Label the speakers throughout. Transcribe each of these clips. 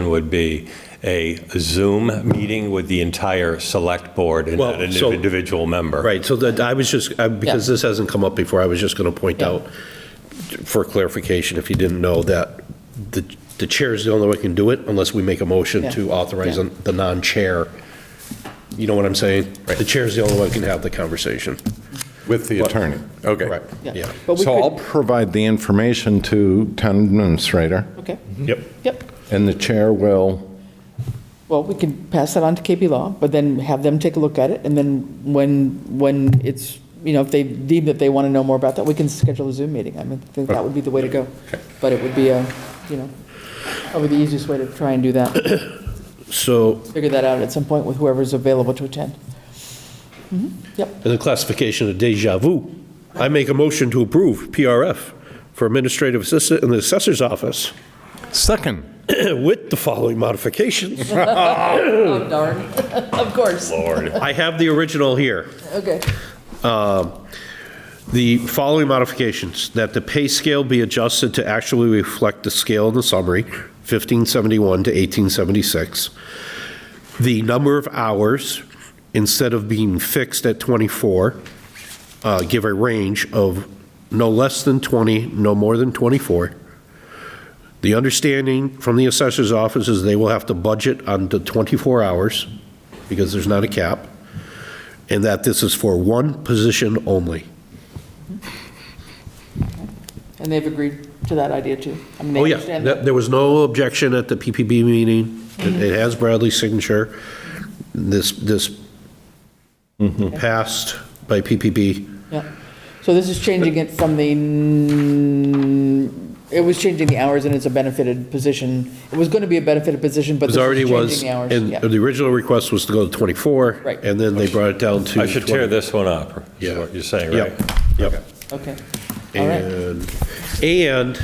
Speaker 1: would be a Zoom meeting with the entire select board and not
Speaker 2: Well,
Speaker 1: an
Speaker 2: so-
Speaker 1: individual member.
Speaker 2: Right, so that, I was just, I- because this hasn't come up before, I was just going to point out, for clarification, if you didn't know, that the the chair is the only one who can do it unless we make a motion to
Speaker 3: Yeah.
Speaker 2: authorize
Speaker 3: Yeah.
Speaker 2: the non-chair. You know what I'm saying? The chair is the only one who can have the conversation.
Speaker 4: With the
Speaker 2: But-
Speaker 4: attorney, okay.
Speaker 2: Correct,
Speaker 3: Yeah.
Speaker 2: yeah.
Speaker 3: But we
Speaker 4: So I'll
Speaker 3: could,
Speaker 4: provide the information to town administrator,
Speaker 3: okay,
Speaker 2: Yep.
Speaker 3: yep.
Speaker 4: and the chair will,
Speaker 3: Well, we can pass that on to KP Law, but then have them take a look at it, and then when, when it's, you know, if they deem that they want to know more about that, we can schedule a Zoom meeting. I mean, I think that would be the way to go. But it would be a, you know, probably the easiest way to try and do that,
Speaker 2: So,
Speaker 3: figure that out at some point with whoever's available to attend. Mhm, Yep,
Speaker 2: and the classification of deja vu, I make a motion to approve PRF for administrative assistant in the assessor's office
Speaker 4: second.
Speaker 2: with the following modifications.
Speaker 3: oh darn, of course,
Speaker 2: I have the original here.
Speaker 3: okay.
Speaker 2: The following modifications, that the pay scale be adjusted to actually reflect the scale in the summary, 1571 to 1876. The number of hours, instead of being fixed at 24, uh, give a range of no less than 20, no more than 24. The understanding from the assessor's office is they will have to budget on the 24 hours, because there's not a cap, and that this is for one position only.
Speaker 3: And they've agreed to that idea, too. I mean, they
Speaker 2: Oh, yeah,
Speaker 3: understand
Speaker 2: That- there was no objection at the PPB meeting. It it has Bradley's signature. This, this
Speaker 1: Mm-hmm.
Speaker 2: passed by PPB.
Speaker 3: Yeah. So this is changing it from the, it was changing the hours and it's a benefited position. It was going to be a benefited position, but
Speaker 2: It
Speaker 3: this
Speaker 2: already
Speaker 3: is
Speaker 2: was,
Speaker 3: changing the hours.
Speaker 2: and
Speaker 3: Yeah.
Speaker 2: the original request was to go to 24.
Speaker 3: Right.
Speaker 2: And then they brought it down to.
Speaker 1: I should tear
Speaker 2: 20.
Speaker 1: this one up, is
Speaker 2: Yeah.
Speaker 1: what you're saying, right?
Speaker 2: Yep, yep.
Speaker 3: Okay. All right.
Speaker 2: And, and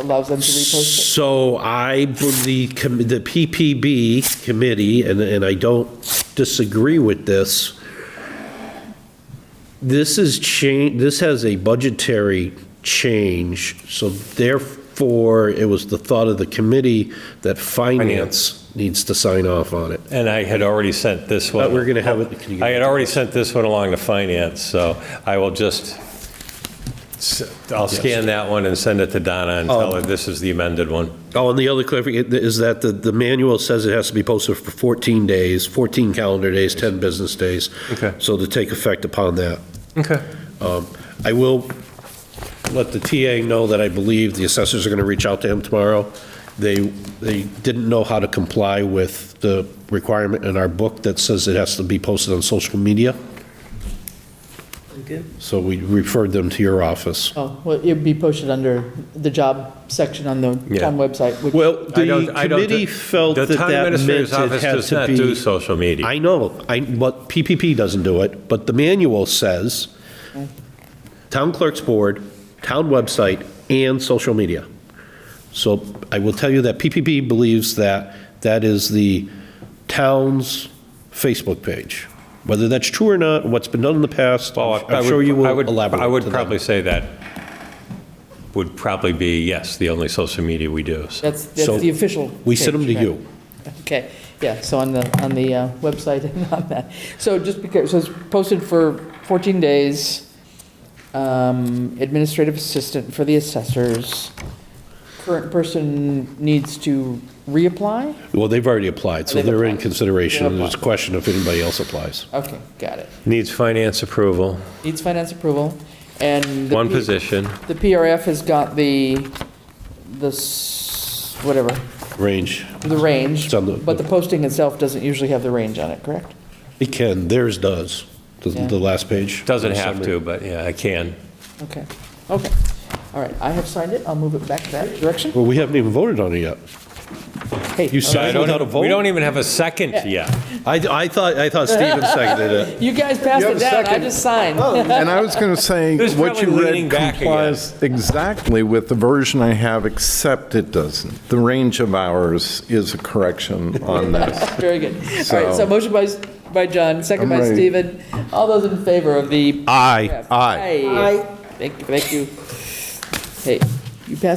Speaker 3: Allows them to repost it.
Speaker 2: So I, the, com- the PPB committee, and, and I don't disagree with this, this is change, this has a budgetary change, so therefore, it was the thought of the committee that finance needs to sign off on it.
Speaker 1: And I had already sent this one.
Speaker 2: But we're gonna have it-
Speaker 1: I had already sent this one along to finance, so I will just, I'll scan that one and send it to Donna and
Speaker 2: Um,
Speaker 1: tell her this is the amended one.
Speaker 2: Oh, and the other clarification is that the, the manual says it has to be posted for 14 days, 14 calendar days, 10 business days.
Speaker 1: Okay.
Speaker 2: So to take effect upon that.
Speaker 1: Okay.
Speaker 2: I will let the TA know that I believe the assessors are going to reach out to him tomorrow. They, they didn't know how to comply with the requirement in our book that says it has to be posted on social media. So we referred them to your office.
Speaker 3: Oh, well, it'd be posted under the job section on the
Speaker 1: Yeah.
Speaker 3: town website. which-
Speaker 2: Well,
Speaker 1: I don't-
Speaker 2: the
Speaker 1: I don't-
Speaker 2: committee felt that
Speaker 1: The town
Speaker 2: that meant
Speaker 1: administrator's
Speaker 2: it
Speaker 1: office
Speaker 2: had
Speaker 1: does not
Speaker 2: to
Speaker 1: do
Speaker 2: be.
Speaker 1: social media.
Speaker 2: I know, I, but PPP doesn't do it, but the manual says town clerk's board, town website, and social media. So I will tell you that PPP believes that that is the town's Facebook page. Whether that's true or not, what's been done in the past,
Speaker 1: Well, I- I
Speaker 2: I'm sure
Speaker 1: would-
Speaker 2: you will
Speaker 1: I would-
Speaker 2: elaborate.
Speaker 1: I would
Speaker 2: to them.
Speaker 1: probably say that would probably be, yes, the only social media we do. so.
Speaker 3: That's, that's
Speaker 2: So
Speaker 3: the official.
Speaker 2: we sent them
Speaker 3: page,
Speaker 2: to
Speaker 3: right.
Speaker 2: you.
Speaker 3: Okay, yeah, so on the, on the uh, website and on that. So just because, so it's posted for 14 days, um, administrative assistant for the assessors. Current person needs to reapply?
Speaker 2: Well, they've already applied, so
Speaker 3: They've
Speaker 2: they're in
Speaker 3: applied.
Speaker 2: consideration.
Speaker 3: They've
Speaker 2: and There's a question if anybody else applies.
Speaker 3: Okay, got it.
Speaker 1: Needs finance approval,
Speaker 3: Needs finance approval, and. the
Speaker 1: one
Speaker 3: P-
Speaker 1: position.
Speaker 3: The PRF has got the, the, s- whatever,
Speaker 2: Range,
Speaker 3: the range,
Speaker 2: It's on the-
Speaker 3: but the posting itself doesn't usually have the range on it, correct?
Speaker 2: it can, theirs does, the,
Speaker 3: Yeah.
Speaker 2: the last page.
Speaker 1: Doesn't
Speaker 2: the
Speaker 1: have
Speaker 2: summary.
Speaker 1: to, but yeah, I can.
Speaker 3: Okay, okay. All right, I have signed it, I'll move it back that direction.
Speaker 2: Well, we haven't even voted on it yet.
Speaker 3: Hey,
Speaker 2: You
Speaker 1: uh, I
Speaker 2: signed
Speaker 1: don't-
Speaker 2: without a
Speaker 1: We
Speaker 2: vote?
Speaker 1: don't even have a second yet.
Speaker 2: I, I thought, I thought Steven seconded it.
Speaker 3: you guys passed
Speaker 4: You have
Speaker 3: it
Speaker 4: a
Speaker 3: down, I
Speaker 4: second. Oh.
Speaker 3: just signed.
Speaker 4: And I was going to say,
Speaker 1: This is
Speaker 4: what you
Speaker 1: probably leaning
Speaker 4: read
Speaker 1: back again.
Speaker 4: complies exactly with the version I have, except it doesn't. The range of hours is a correction on this.
Speaker 3: Very good. All right, so
Speaker 4: So-
Speaker 3: motion by, by John, second by
Speaker 4: I'm ready.
Speaker 3: Stephen. All those in favor of the.
Speaker 2: Aye.
Speaker 4: Aye.
Speaker 3: Aye. Thank you, thank you. Hey, you pass